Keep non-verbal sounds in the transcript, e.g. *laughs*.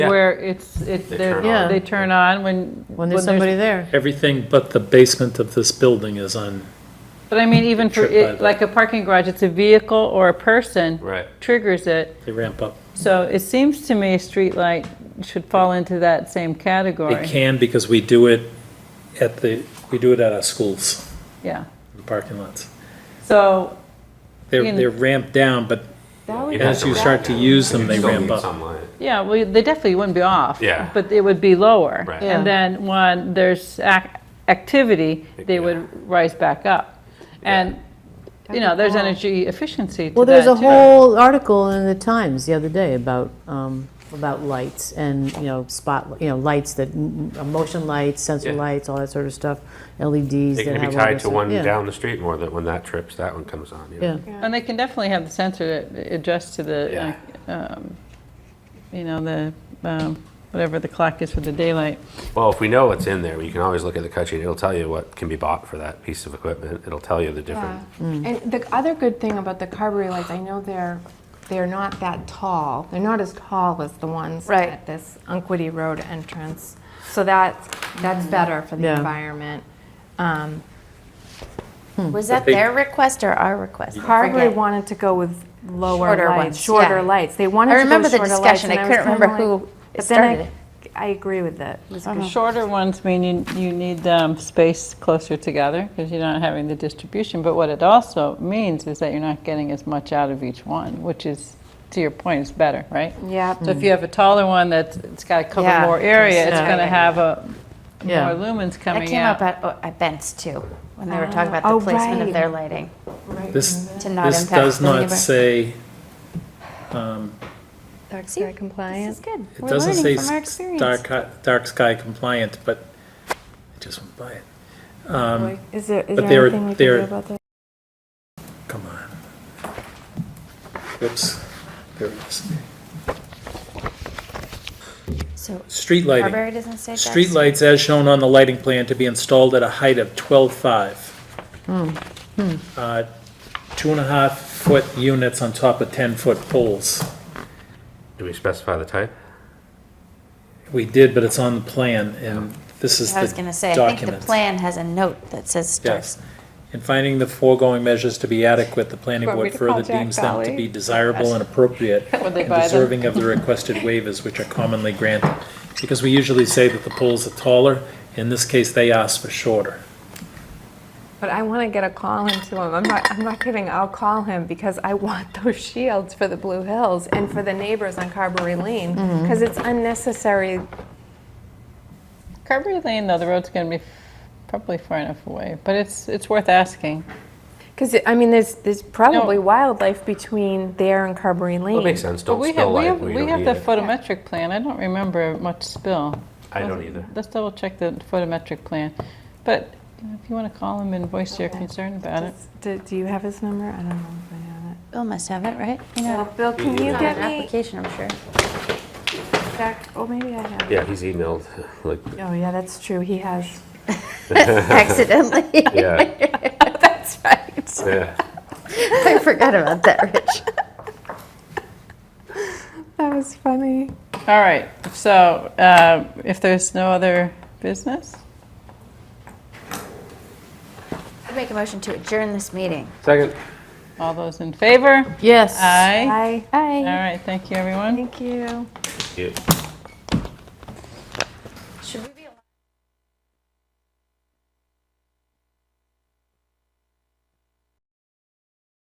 they're, it's, it, They they're, turn yeah, on. they turn on when. when there's somebody there. Everything but the basement of this building is on, But I mean, even for, Trip by it- the- like a parking garage, it's a vehicle or a person. Right. Triggers it. they ramp up. So it seems to me a streetlight should fall into that same category. It can because we do it at the, we do it at our schools, Yeah. the parking lots. So, They're, In- they're ramped down, but You'd have as to you ramp start to use them, they Still ramp need up. some uh, light. yeah, well, they definitely wouldn't be off. Yeah. But it would be lower. Right. And Yeah. then when there's ac- activity, they Yeah. would rise back up. And, you know, there's energy efficiency to Well, there's that, a too. whole article in the Times the other day about, um, about lights and, you know, spot, you know, lights that, m- m- motion lights, sensor Yeah. lights, all that sort of stuff, LEDs They that can be have all tied this to stuff. one Yeah, down the street more that when that trips, that one comes on. you know? Yeah, And they can definitely have the sensor adjust to the, uh, um, you know, the, um, whatever the clock is for the daylight. Well, if we know what's in there, you can always look at the cut sheet. It'll tell you what can be bought for that piece of equipment. It'll tell you the different. And the other good thing about the carberry lights, I know they're, they're not that tall. They're not as tall as the ones Right. at this Unquity Road entrance. So that's, that's better for the Yeah. environment. Um, Was that they- their request or our request? I Carberry forget. wanted to go with lower Shorter lights, ones, shorter yeah. lights. They wanted I to go remember shorter the lights. discussion. and I was couldn't kinda remember like- who But then started I, it. I agree with that. It was The Uh-huh. good. shorter ones mean you, you need um, space closer together because you're not having the distribution. But what it also means is that you're not getting as much out of each one, which is, to your point, is better, right? Yeah. So if you have a taller one that's, it's got to cover Yeah. more area, it's Yeah. going to have a, more Yeah. lumens That coming came up out. at, oh, at Bent's too, when they were talking about Ah, the oh, placement of right. their lighting This, to not this impact. does the not neighbor- say, um, Dark See, sky compliant. This is good. it We're doesn't say learning from our s- experience. dark, hi- dark sky compliant, but I just went by it. Um, Is there, is But there they're- anything we can they're- do about that? Come on. Oops, there it is. So Street lighting. Carberry doesn't say dark. Street lights, as shown on the lighting plan to be installed at a height of 12.5. Hmm. Uh, Two and a half foot units on top of 10-foot poles. Do we specify the type? We did, but it's on the plan, and this is the I was document. gonna say, I think the plan has a note that says dark. Yes. In finding the foregoing measures to be adequate, the planning Want me board to further call Jack deems them to Valley? be desirable and appropriate *laughs* Would they and buy them? deserving of the requested waivers which are commonly granted. Because we usually say that the poles are taller, in this case, they asked for shorter. But I want to get a call into him. I'm not, I'm not kidding. I'll call him because I want those *laughs* shields for the Blue Hills and for the neighbors on Carberry Lane Mm-hmm. because it's unnecessary. Carberry Lane, though, the road's going to be probably far enough away, but it's, it's worth asking. Because I mean, there's there's probably wildlife between there and Carberry Lane. It makes sense. But Don't we have, spill we light. have, when you we don't have need the it. photometric plan, I don't remember much spill. I don't either. Let's double check the photometric plan, but you know, if you want to call him and voice your concern about it. Does- Do, do you have his number? I don't know if I have it. Bill must have it, right? You know, Well, Bill, can you it's on an get me application, I'm sure. back? Oh, maybe I have. Yeah, he's emailed. *laughs* Like, Oh, yeah, that's true. He has. Accidentally. yeah, That's right. yeah. I forgot about that, Rich. That was funny. All right, so uh, if there's no other business, I make a motion to adjourn this meeting. Second. all those in favor? yes. Aye. Hi. All Hi. right, thank you, everyone. Thank you. Yeah. Should we be